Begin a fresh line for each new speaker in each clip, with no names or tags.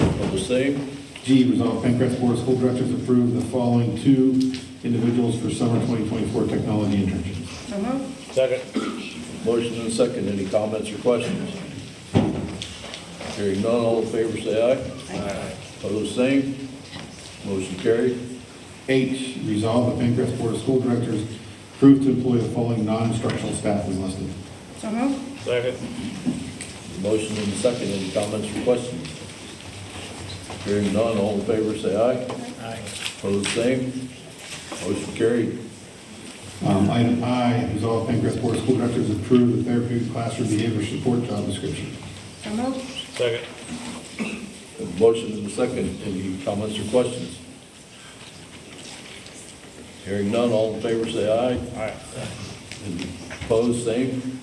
All the same,
G, resolve Pencrest Board of School Directors approve the following two individuals for summer 2024 technology internships.
So moved.
Second.
motion and second, any comments or questions? Hearing none, all in favor say aye. Aye. Opposed, same, motion carried.
H, resolve the Pencrest Board of School Directors approve to employ the following non-instructional staff as listed.
So moved.
Second.
Motion and second, any comments or questions? Hearing none, all in favor say aye.
Aye.
Opposed, same, motion carried.
Um, Item I, resolve Pencrest Board of School Directors approve the therapeutic classroom behavior support job description.
So moved.
Second.
Motion and second, any comments or questions? Hearing none, all in favor say aye.
Aye.
And Opposed, same,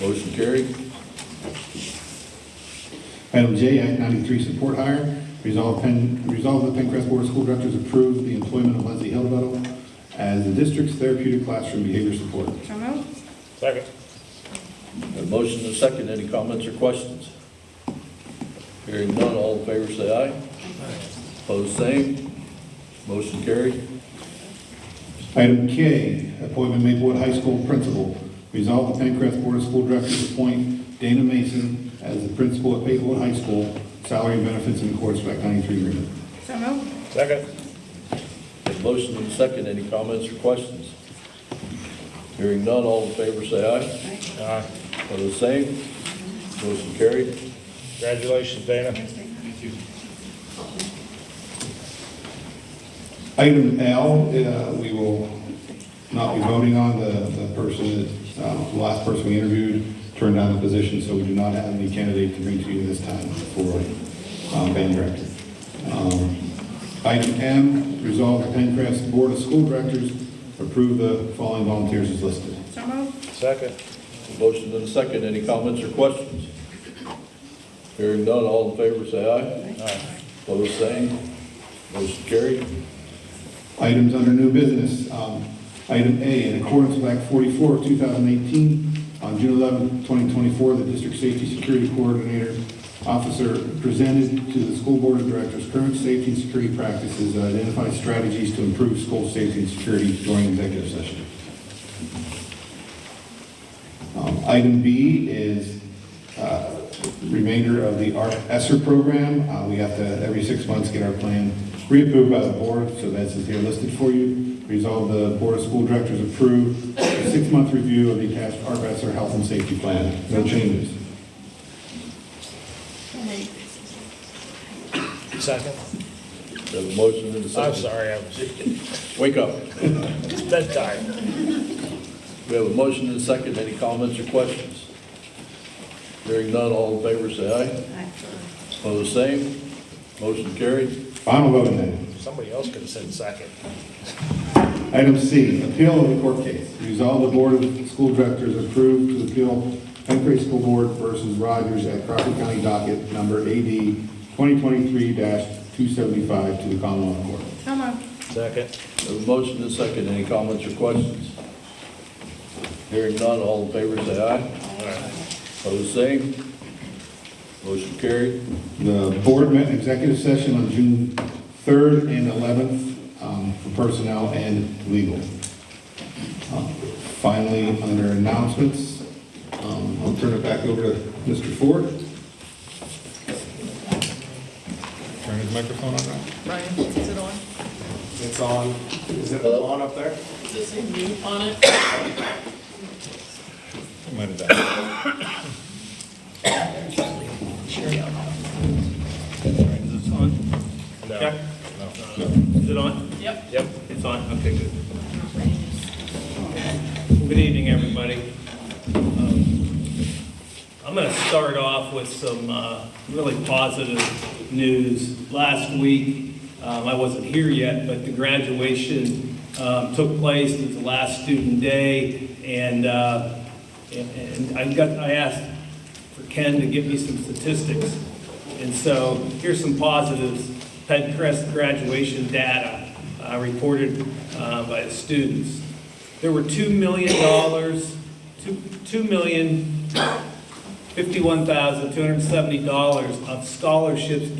motion carried.
Item J, Act 93 support hire, resolve Pen, resolve the Pencrest Board of School Directors approve the employment of Leslie Hillvettle as the district's therapeutic classroom behavior support.
So moved.
Second.
A motion and second, any comments or questions? Hearing none, all in favor say aye. Opposed, same, motion carried.
Item K, appointment Maplewood High School principal. Resolve the Pencrest Board of School Directors appoint Dana Mason as the principal at Maplewood High School, salary and benefits in accordance with Act 93 agreement.
So moved.
Second.
A motion and second, any comments or questions? Hearing none, all in favor say
Aye.
aye. Opposed, same, motion carried.
Congratulations, Dana.
Item L, uh, we will not be voting on the the person, that, uh, the last person we interviewed turned down the position, so we do not have any candidate to bring to you this time for um, band director. Um, Item M, resolve the Pencrest Board of School Directors approve the following volunteers as listed.
So moved.
Second.
Motion and second, any comments or questions? Hearing none, all in favor say aye.
Aye.
Opposed, same, motion carried.
Items under new business. Um, Item A, in accordance with Act 44 of 2018, on June 11, 2024, the District Safety Security Coordinator Officer presented to the School Board of Directors current safety and security practices and identified strategies to improve school safety and security during executive session. Um, Item B is uh, remainder of the ARC ESSER program. Uh, We have to, every six months, get our plan reapproved by the board, so that's is here listed for you. Resolve the Board of School Directors approve a six-month review of the attached ARC ESSER health and safety plan. No changes.
Second.
The motion and
I'm
2nd
sorry, I was,
Wake up.
it's bedtime.
We have a motion and second, any comments or questions? Hearing none, all in favor say
Aye.
aye. Opposed, same, motion carried.
Final vote then.
Somebody else could have said second.
Item C, appeal of the court case. Resolve the Board of School Directors approve to appeal Pencrase School Board versus Rogers at Crawford County Docket Number AD 2023-275 to the Commonwealth Court.
So moved.
Second.
We have a motion and second, any comments or questions? Hearing none, all in favor say aye.
All right.
Opposed, same, motion carried.
The board met in executive session on June 3rd and 11th um, for personnel and legal. Um, Finally, under announcements, um, I'll turn it back over to Mr. Ford. Turn his microphone on now.
Ryan, is it on?
It's on, is it on up there?
Does it say mute on it?
Is it on?
No.
Check.
No.
Is it on?
Yep.
Yep.
It's on, okay, good. Good evening, everybody. Um, I'm going to start off with some uh, really positive news. Last week, um, I wasn't here yet, but the graduation um, took place, it was the last student day, and uh, and- and I got, I asked for Ken to give me some statistics. And so here's some positives. Pencrest graduation data uh, reported uh, by the students. There were $2 million, two- $2 million $51,270 of scholarships